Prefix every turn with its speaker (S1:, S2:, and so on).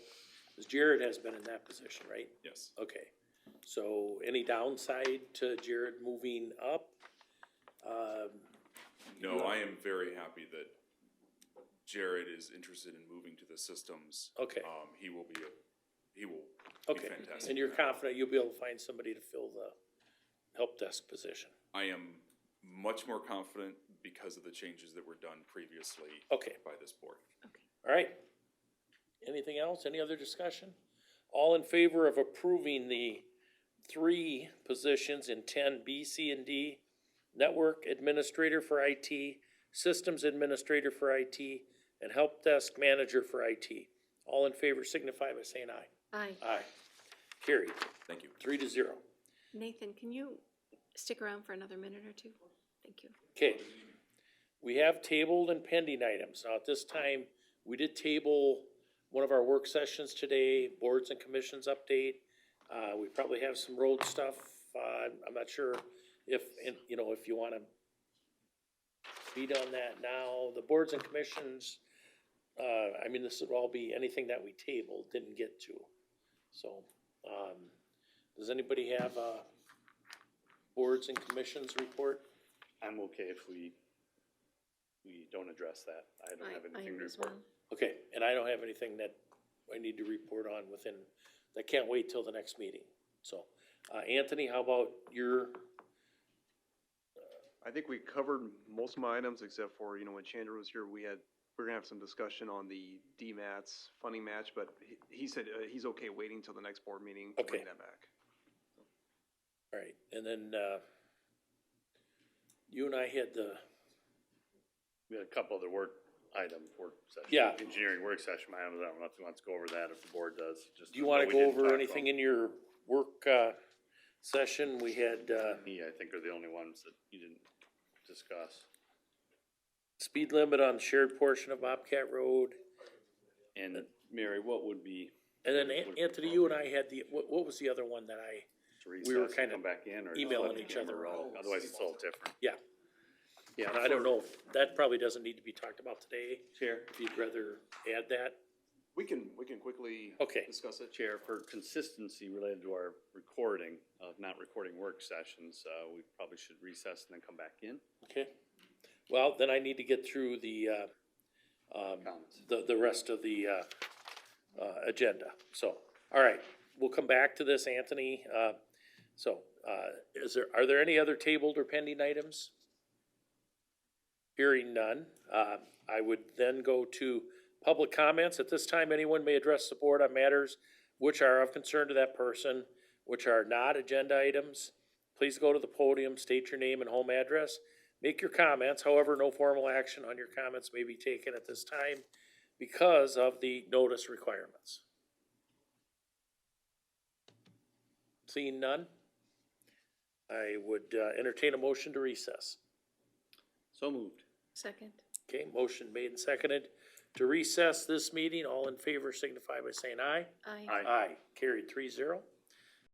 S1: Cause Jared has been in that position, right?
S2: Yes,
S1: Okay, so any downside to Jared moving up? Um,
S2: no, I am very happy that Jared is interested in moving to the systems.
S1: Okay,
S2: Um, he will be, a- he will be
S1: okay,
S2: fantastic.
S1: and you're confident you'll be able to find somebody to fill the help desk position?
S2: I am much more confident because of the changes that were done previously
S1: Okay,
S2: by this board.
S1: all right. Anything else? Any other discussion? All in favor of approving the three positions in ten B, C, and D? Network Administrator for IT, Systems Administrator for IT, and Help Desk Manager for IT. All in favor signify by saying aye.
S3: Aye.
S1: Aye. Carried,
S2: Thank you.
S1: three to zero.
S3: Nathan, can you stick around for another minute or two? Thank you.
S1: Okay. We have tabled and pending items. Now, at this time, we did table one of our work sessions today, boards and commissions update. Uh, we probably have some road stuff. Uh, I'm not sure if, and, you know, if you wanna beat on that now. The boards and commissions, uh, I mean, this would all be anything that we tabled, didn't get to. So, um, does anybody have a boards and commissions report?
S4: I'm okay if we, we don't address that. I don't have
S3: I- I
S4: anything
S3: am
S4: to
S3: as
S4: report.
S3: well.
S1: Okay, and I don't have anything that I need to report on within, I can't wait till the next meeting, so. Uh, Anthony, how about your,
S5: I think we covered most of my items except for, you know, when Chandra was here, we had, we are gonna have some discussion on the DMATs funding match, but he, he said, uh, he's okay waiting till the next board meeting to
S1: Okay.
S5: bring that back.
S1: all right, and then, uh, you and I had the,
S4: We had a couple other work item, work session.
S1: Yeah.
S4: Engineering work session items. I don't know if you want to go over that, if the board does. just
S1: do you
S4: that
S1: wanna
S4: we
S1: go
S4: didn't talk
S1: over
S4: about.
S1: anything in your work, uh, session? We had, uh,
S4: Me, I think are the only ones that you didn't discuss.
S1: speed limit on shared portion of Bobcat Road.
S4: And Mary, what would be
S1: And then An- Anthony, you and I had the, what, what was the other one that I,
S4: to
S1: We were
S4: recess and
S1: kinda
S4: come back in or? just
S1: emailing
S4: let the
S1: each other.
S4: camera roll? Otherwise it's all different.
S1: yeah,
S4: Yeah.
S1: I don't know, that probably doesn't need to be talked about today,
S4: Chair,
S1: if you'd rather add that,
S5: We can, we can quickly
S1: okay.
S5: discuss it.
S4: Chair, for consistency related to our recording, of not recording work sessions, uh, we probably should recess and then come back in.
S1: Okay, well, then I need to get through the, uh, um,
S4: Comments.
S1: the, the rest of the, uh, uh, agenda, so, all right, we'll come back to this, Anthony, uh, so, uh, is there, are there any other tabled or pending items? Hearing none, uh, I would then go to public comments, at this time, anyone may address the board on matters which are of concern to that person, which are not agenda items, please go to the podium, state your name and home address, Make your comments, however, no formal action on your comments may be taken at this time because of the notice requirements. Seeing none, I would uh, entertain a motion to recess.
S4: So moved.
S3: Second.
S1: Okay, motion made and seconded to recess this meeting. All in favor signify by saying aye.
S3: Aye.
S4: Aye.
S1: Aye, carried three zero.